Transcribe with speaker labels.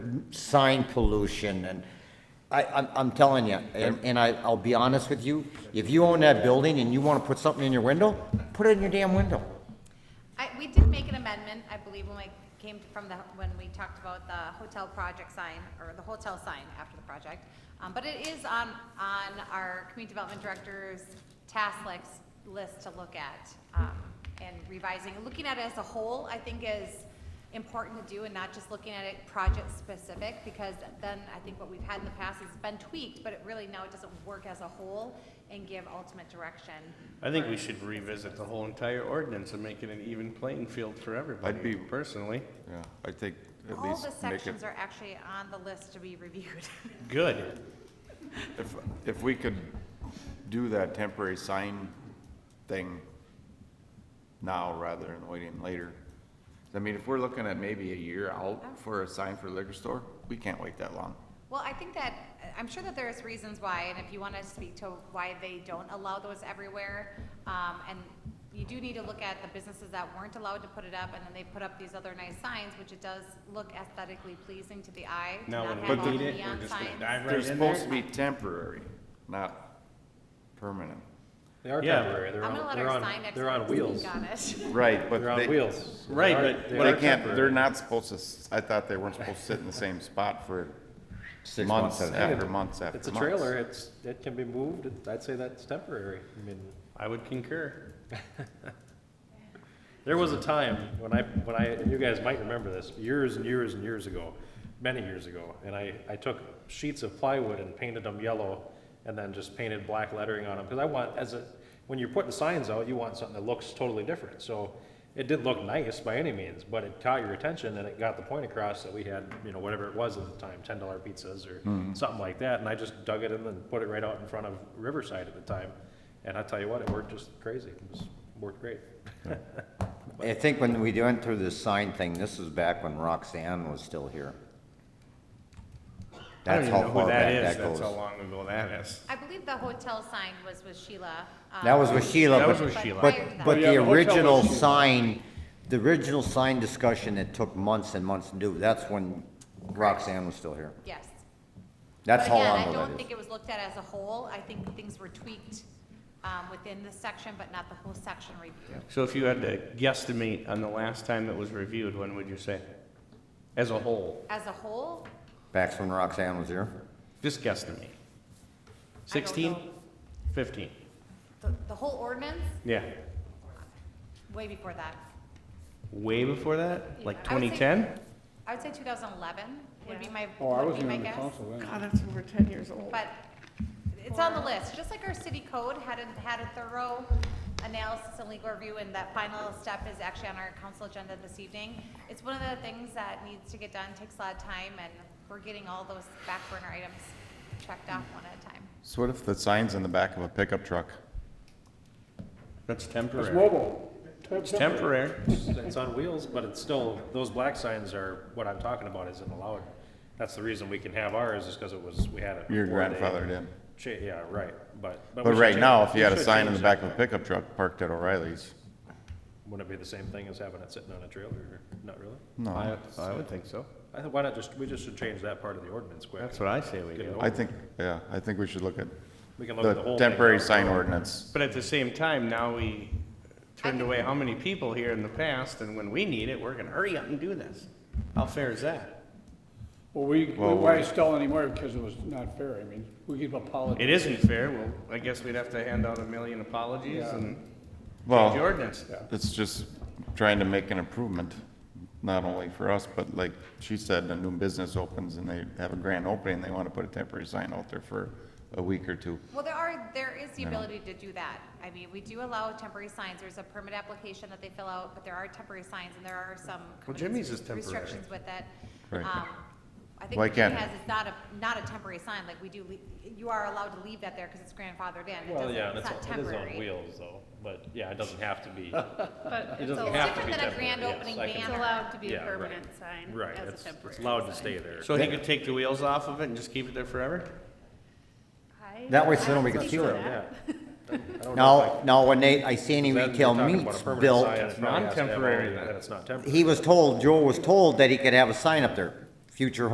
Speaker 1: sign pollution and I, I'm, I'm telling you, and, and I, I'll be honest with you, if you own that building and you wanna put something in your window, put it in your damn window.
Speaker 2: I, we did make an amendment, I believe, when we came from the, when we talked about the hotel project sign, or the hotel sign after the project. Um, but it is on, on our community development director's task list, list to look at, um, and revising. Looking at it as a whole, I think is important to do and not just looking at it project-specific, because then I think what we've had in the past has been tweaked, but it really now it doesn't work as a whole and give ultimate direction.
Speaker 3: I think we should revisit the whole entire ordinance and make it an even playing field for
Speaker 4: I'd be-
Speaker 3: everybody, personally.
Speaker 4: Yeah, I think at
Speaker 2: All
Speaker 4: least
Speaker 2: the
Speaker 4: make it,
Speaker 2: sections are actually on the list to be reviewed.
Speaker 3: Good.
Speaker 4: if, if we could do that temporary sign thing now rather than waiting later. I mean, if we're looking at maybe a year out for a sign for liquor store, we can't wait that long.
Speaker 2: Well, I think that, I'm sure that there's reasons why, and if you want to speak to why they don't allow those everywhere, um, and you do need to look at the businesses that weren't allowed to put it up, and then they put up these other nice signs, which it does look aesthetically pleasing to the eye. to
Speaker 3: Now
Speaker 2: not
Speaker 3: when
Speaker 2: have all
Speaker 3: we
Speaker 2: the
Speaker 3: need it,
Speaker 2: neon
Speaker 3: we're just gonna
Speaker 2: signs.
Speaker 3: dive
Speaker 4: They're
Speaker 3: right in there.
Speaker 4: supposed to be temporary, not permanent.
Speaker 5: They are
Speaker 3: Yeah.
Speaker 5: temporary. They're
Speaker 2: I'm gonna
Speaker 5: on,
Speaker 2: let
Speaker 5: they're
Speaker 2: our
Speaker 5: on,
Speaker 2: sign
Speaker 5: they're on
Speaker 2: expert
Speaker 5: wheels.
Speaker 2: speak on it.
Speaker 4: Right, but
Speaker 5: They're on
Speaker 4: they,
Speaker 5: wheels. They
Speaker 3: Right,
Speaker 5: are-
Speaker 3: but-
Speaker 5: they
Speaker 3: but
Speaker 4: they
Speaker 5: are
Speaker 4: can't,
Speaker 5: temporary.
Speaker 4: they're not supposed to, s- I thought they weren't supposed to sit in the same spot for
Speaker 1: Six
Speaker 4: months
Speaker 1: months at a
Speaker 5: Yeah,
Speaker 4: after months after months.
Speaker 5: It's a trailer, it's, it can be moved, It- I'd say that's temporary, I mean,
Speaker 3: I would concur.
Speaker 5: there was a time when I, when I, and you guys might remember this, years and years and years ago, many years ago, and I, I took sheets of plywood and painted them yellow, and then just painted black lettering on them, because I want, as a, when you're putting signs out, you want something that looks totally different, so it didn't look nice by any means, but it caught your attention, and it got the point across that we had, you know, whatever it was at the time, ten dollar pizzas or something like that, and I just dug it in and put it right out in front of Riverside at the time, and I tell you what, it worked just crazy, it was, worked great.
Speaker 1: I think when we went through this sign thing, this was back when Roxanne was still here.
Speaker 3: I don't
Speaker 1: That's
Speaker 3: even
Speaker 1: how
Speaker 3: know who
Speaker 1: far
Speaker 3: that
Speaker 1: back
Speaker 3: is,
Speaker 1: that
Speaker 3: that's how
Speaker 1: goes.
Speaker 3: long ago that is.
Speaker 2: I believe the hotel sign was with Sheila. um,
Speaker 1: That was with Sheila,
Speaker 3: That
Speaker 1: but.
Speaker 3: was with
Speaker 2: but
Speaker 3: Sheila.
Speaker 1: But,
Speaker 2: prior to that-
Speaker 1: but
Speaker 3: Oh, Yeah,
Speaker 1: the
Speaker 3: the hotel
Speaker 1: original
Speaker 3: issue.
Speaker 1: sign, the original sign discussion, it took months and months to do, that's when Roxanne was still here.
Speaker 2: Yes.
Speaker 1: That's
Speaker 2: But
Speaker 1: how
Speaker 2: again,
Speaker 1: long
Speaker 2: I
Speaker 1: ago
Speaker 2: don't
Speaker 1: that is.
Speaker 2: think it was looked at as a whole. I think things were tweaked um, within the section, but not the whole section review.
Speaker 3: So if you had to guesstimate on the last time it was reviewed, when would you say? As a whole,
Speaker 2: As a whole,
Speaker 1: Back when Roxanne was here.
Speaker 3: just guesstimate. Sixteen? Fifteen?
Speaker 2: the, the whole ordinance,
Speaker 3: Yeah.
Speaker 2: way before that.
Speaker 3: Way before that?
Speaker 2: I would
Speaker 3: Like
Speaker 2: say-
Speaker 3: twenty ten?
Speaker 2: I would say 2011 would be my,
Speaker 6: Oh, I
Speaker 2: would be
Speaker 6: wasn't
Speaker 2: my
Speaker 6: on the
Speaker 2: guess.
Speaker 6: council then.
Speaker 7: God, that's over ten years old.
Speaker 2: But it's on the list, just like our city code had a, had a thorough analysis and legal review, and that final step is actually on our council agenda this evening. It's one of the things that needs to get done, takes a lot of time, and we're getting all those back burner items checked off one at a time.
Speaker 4: So what if the sign's in the back of a pickup truck?
Speaker 3: That's
Speaker 6: It's
Speaker 3: temporary.
Speaker 6: mobile.
Speaker 3: It's temporary.
Speaker 5: It's on wheels, but it's still, those black signs are, what I'm talking about isn't allowed. That's the reason we can have ours, is because it was, we had it.
Speaker 4: Your
Speaker 5: before they
Speaker 4: grandfather did.
Speaker 5: cha- Yeah, right, but. we
Speaker 4: But
Speaker 5: should
Speaker 4: right
Speaker 5: change-
Speaker 4: now, if
Speaker 5: we
Speaker 4: you had a
Speaker 5: should
Speaker 4: sign in
Speaker 5: change
Speaker 4: the back
Speaker 5: that.
Speaker 4: of a pickup truck parked at O'Reilly's,
Speaker 5: Wouldn't it be the same thing as having it sitting on a trailer, or, not really?
Speaker 4: no.
Speaker 3: I, I would think so.
Speaker 5: I think, why not just, we just should change that part of the ordinance quick.
Speaker 3: That's what I say we
Speaker 5: Get it
Speaker 3: do.
Speaker 4: I
Speaker 5: over.
Speaker 4: think, yeah, I think we should look at
Speaker 5: We can look at the
Speaker 4: the
Speaker 5: whole thing.
Speaker 4: temporary sign ordinance.
Speaker 3: But at the same time, now we turned away how many people here in the past, and when we need it, we're gonna hurry up and do this. How fair is that?
Speaker 6: Well, we,
Speaker 4: Well,
Speaker 6: why
Speaker 4: we-
Speaker 6: it's still anymore, because it was not fair, I mean, we give apologies.
Speaker 3: It isn't fair, well, I guess we'd have to hand out a million apologies and change the
Speaker 4: Well,
Speaker 3: ordinance.
Speaker 4: it's just trying to make an improvement, not only for us, but like she said, a new business opens and they have a grand opening, they want to put a temporary sign out there for a week or two.
Speaker 2: Well, there are, there is the ability to do that. I mean, we do allow temporary signs. There's a permit application that they fill out, but there are temporary signs and there are some.
Speaker 3: Well, Jimmy's is temporary.
Speaker 2: Restrictions with it.
Speaker 4: Right.
Speaker 2: Um, I think
Speaker 4: Why
Speaker 2: what Jimmy
Speaker 4: can't-
Speaker 2: has is not a, not a temporary sign, like we do, le- you are allowed to leave that there because it's grandfathered in. It
Speaker 5: Well,
Speaker 2: doesn't,
Speaker 5: yeah, and
Speaker 2: it's
Speaker 5: it's,
Speaker 2: not
Speaker 5: on- it is on
Speaker 2: temporary.
Speaker 5: wheels though, but, yeah, it doesn't have to be,
Speaker 7: But
Speaker 5: it
Speaker 7: it's
Speaker 5: doesn't
Speaker 7: allowed,
Speaker 5: have to
Speaker 2: different
Speaker 5: be temporary,
Speaker 2: than a grand
Speaker 5: yes,
Speaker 2: opening
Speaker 5: I
Speaker 2: ban.
Speaker 7: it's
Speaker 5: can-
Speaker 7: allowed to be a
Speaker 5: Yeah, right.
Speaker 7: permanent sign
Speaker 5: Right,
Speaker 7: as a
Speaker 5: it's,
Speaker 7: temporary.
Speaker 5: it's allowed to
Speaker 7: sign.
Speaker 5: stay there.
Speaker 3: So he could take the wheels off of it and just keep it there forever?
Speaker 7: I-
Speaker 1: That way,
Speaker 7: I
Speaker 1: so then we
Speaker 7: don't
Speaker 1: can
Speaker 7: think
Speaker 1: see
Speaker 7: so,
Speaker 1: it.
Speaker 7: yeah.
Speaker 5: Yeah. I don't know if I-
Speaker 1: Now, now when they, I see any
Speaker 5: Then you're
Speaker 1: retail
Speaker 5: talking about a
Speaker 1: meats
Speaker 5: permanent
Speaker 1: built,
Speaker 5: sign that's probably has to have all
Speaker 3: Non-temporary
Speaker 5: the-
Speaker 3: then.
Speaker 5: That it's not temporary.
Speaker 1: he was told, Joel was told that he could have a sign up there, future